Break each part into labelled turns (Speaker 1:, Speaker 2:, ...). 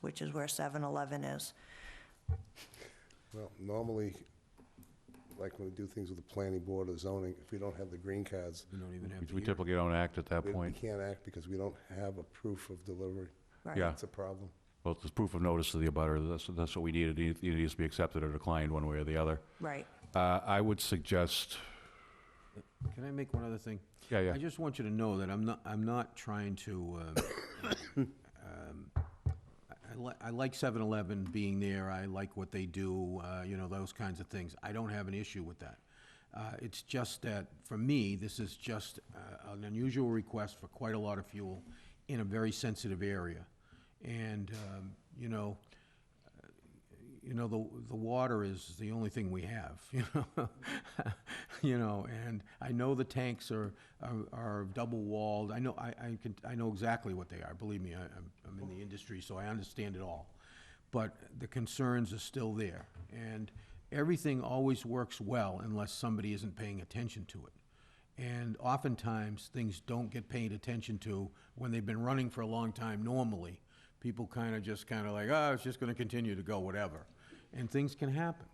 Speaker 1: which is where 7-Eleven is.
Speaker 2: Well, normally, like when we do things with the planning board or zoning, if we don't have the green cards,
Speaker 3: We don't even have
Speaker 4: We typically don't act at that
Speaker 2: we we
Speaker 4: point.
Speaker 2: can't act because we don't have a proof of delivery.
Speaker 1: right?
Speaker 4: Yeah.
Speaker 2: That's a problem.
Speaker 4: Well, it's proof of notice to the abutter, that's, that's what we need, it needs- it needs to be accepted or declined one way or the other.
Speaker 1: Right.
Speaker 4: Uh, I would suggest,
Speaker 3: Can I make one other thing?
Speaker 4: yeah, yeah,
Speaker 3: I just want you to know that I'm not, I'm not trying to, um, um, I- I li- I like 7-Eleven being there, I like what they do, uh, you know, those kinds of things. I don't have an issue with that. Uh, It's just that, for me, this is just uh, an unusual request for quite a lot of fuel in a very sensitive area. And, um, you know, you know, the, the water is the only thing we have, you know? You know, and I know the tanks are, are- are double walled, I know, I, I can, I know exactly what they are, believe me, I, I'm- I'm in the industry, so I understand it all. But the concerns are still there, and everything always works well unless somebody isn't paying attention to it. And oftentimes, things don't get paid attention to when they've been running for a long time normally. People kind of just kind of like, oh, it's just going to continue to go, whatever. And things can happen.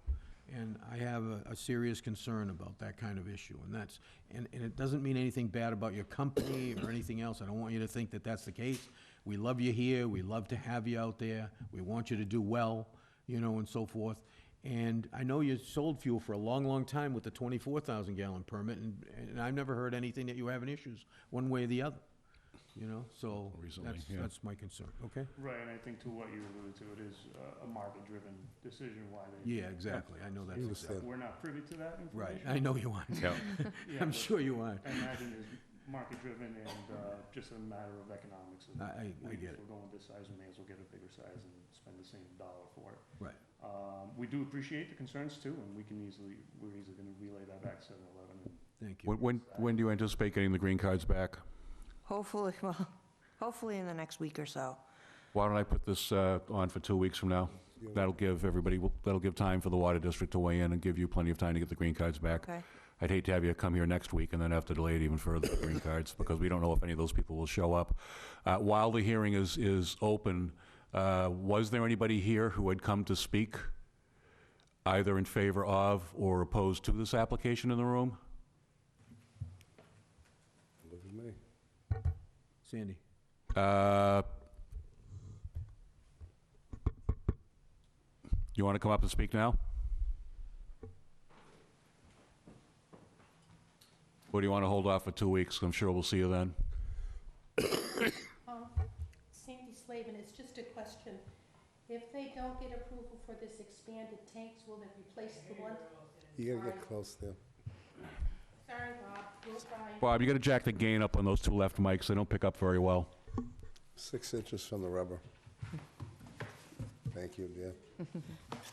Speaker 3: And I have a, a serious concern about that kind of issue. And that's, and, and it doesn't mean anything bad about your company or anything else. I don't want you to think that that's the case. We love you here. We love to have you out there. We want you to do well, you know, and so forth. And I know you sold fuel for a long, long time with the twenty-four thousand gallon permit, and, and I've never heard anything that you having issues, one way or the other, you know, so
Speaker 4: Recently,
Speaker 3: that's,
Speaker 4: yeah.
Speaker 3: that's my concern, okay?
Speaker 5: Right, and I think to what you alluded to, it is uh, a market-driven decision why they.
Speaker 3: Yeah, exactly, I know that's
Speaker 2: You
Speaker 3: exactly,
Speaker 2: understand.
Speaker 5: We're not privy to that
Speaker 3: right,
Speaker 5: information.
Speaker 3: I know you aren't,
Speaker 4: yeah.
Speaker 5: Yeah,
Speaker 3: I'm
Speaker 5: but
Speaker 3: sure you aren't,
Speaker 5: I imagine it's market-driven and uh, just a matter of economics. of
Speaker 3: I, I, I
Speaker 5: we-
Speaker 3: get
Speaker 5: If
Speaker 3: it,
Speaker 5: we're going this size, we may as well get a bigger size and spend the same dollar for it.
Speaker 3: right,
Speaker 5: Um, We do appreciate the concerns too, and we can easily, we're easily going to relay that back to 7-Eleven. and
Speaker 3: thank you.
Speaker 4: When, when, when do you anticipate getting the green cards back?
Speaker 1: Hopefully, well, hopefully in the next week or so.
Speaker 4: Why don't I put this, uh, on for two weeks from now? That'll give everybody, that'll give time for the water district to weigh in and give you plenty of time to get the green cards back.
Speaker 1: Okay?
Speaker 4: I'd hate to have you come here next week and then have to delay it even further, the green cards, because we don't know if any of those people will show up. Uh, While the hearing is, is open, uh, was there anybody here who had come to speak, either in favor of or opposed to this application in the room?
Speaker 2: Look at me.
Speaker 3: Sandy,
Speaker 4: Uh, You want to come up and speak now? Or do you want to hold off for two weeks? I'm sure we'll see you then.
Speaker 6: Um, Sandy Slavin, it's just a question. If they don't get approval for this expanded tanks, will they replace the one?
Speaker 2: You gotta get close there.
Speaker 6: Sorry, Bob, you're fine.
Speaker 4: Bob, you got to jack the gain up on those two left mics. They don't pick up very well.
Speaker 2: Six inches from the rubber. Thank you, dear.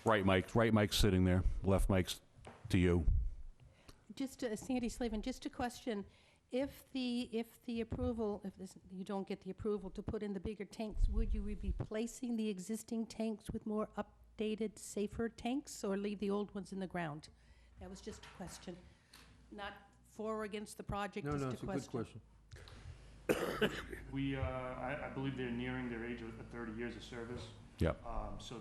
Speaker 4: Right mic, right mic's sitting there. Left mic's to you.
Speaker 6: Just, a- Sandy Slavin, just a question. If the, if the approval, if this, you don't get the approval to put in the bigger tanks, would you be replacing the existing tanks with more updated, safer tanks, or leave the old ones in the ground? That was just a question. Not for or against the project,
Speaker 3: no,
Speaker 6: just
Speaker 3: no, it's a good question.
Speaker 5: We, uh, I, I believe they're nearing their age of thirty years of service.
Speaker 4: Yep.
Speaker 5: Um, so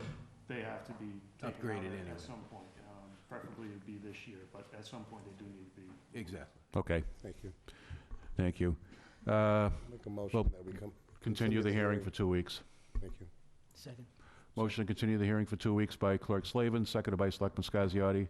Speaker 5: they have to be taken out
Speaker 3: Upgraded
Speaker 5: at-
Speaker 3: anyway.
Speaker 5: at some point. Um, preferably it'd be this year, but at some point they do need to be.
Speaker 3: Exactly,
Speaker 4: Okay,
Speaker 2: Thank you.
Speaker 4: thank you. Uh,
Speaker 2: Make a motion that we come,
Speaker 4: Continue the hearing for two weeks.
Speaker 2: thank you.
Speaker 4: Motion to continue the hearing for two weeks by Clerk Slavin, seconded by Selectman Scasiotti.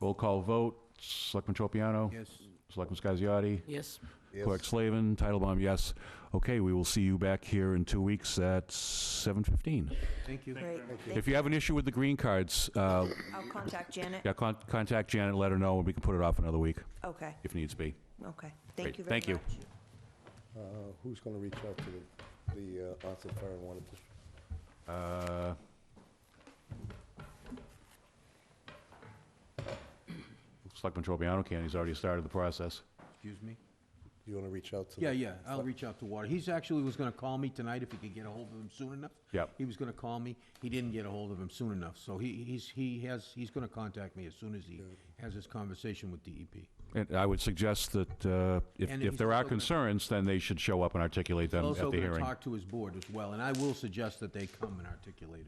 Speaker 4: Roll call vote, Selectman Tropiano,
Speaker 3: yes,
Speaker 4: Selectman Scasiotti,
Speaker 7: Yes,
Speaker 4: Clerk
Speaker 2: Yes,
Speaker 4: Slavin, Titlebaum, yes. Okay, we will see you back here in two weeks at 7:15.
Speaker 3: thank you.
Speaker 1: Great.
Speaker 4: If you have an issue with the green cards, uh,
Speaker 1: I'll contact Janet.
Speaker 4: yeah, con- contact Janet, let her know, and we can put it off another week
Speaker 1: Okay,
Speaker 4: if needs be.
Speaker 1: okay.
Speaker 4: Great,
Speaker 1: Thank you very much.
Speaker 4: thank you.
Speaker 2: Uh, who's gonna reach out to the, the uh, Onset Fire and Water District?
Speaker 4: Uh, Selectman Tropiano can, he's already started the process.
Speaker 3: Excuse me,
Speaker 2: you want to reach out to?
Speaker 3: Yeah,
Speaker 2: the-
Speaker 3: yeah, I'll reach out to Water. He's actually was gonna call me tonight if he could get a hold of him soon enough.
Speaker 4: Yep.
Speaker 3: He was gonna call me. He didn't get a hold of him soon enough, so he, he's, he has, he's gonna contact me as soon as he has his conversation with E DEP.
Speaker 4: And I would suggest that uh, if
Speaker 3: And
Speaker 4: if
Speaker 3: he's
Speaker 4: there are
Speaker 3: also gonna-
Speaker 4: concerns, then they should show up and articulate them at the
Speaker 3: Also
Speaker 4: hearing.
Speaker 3: gonna talk to his board as well, and I will suggest that they come and articulate it.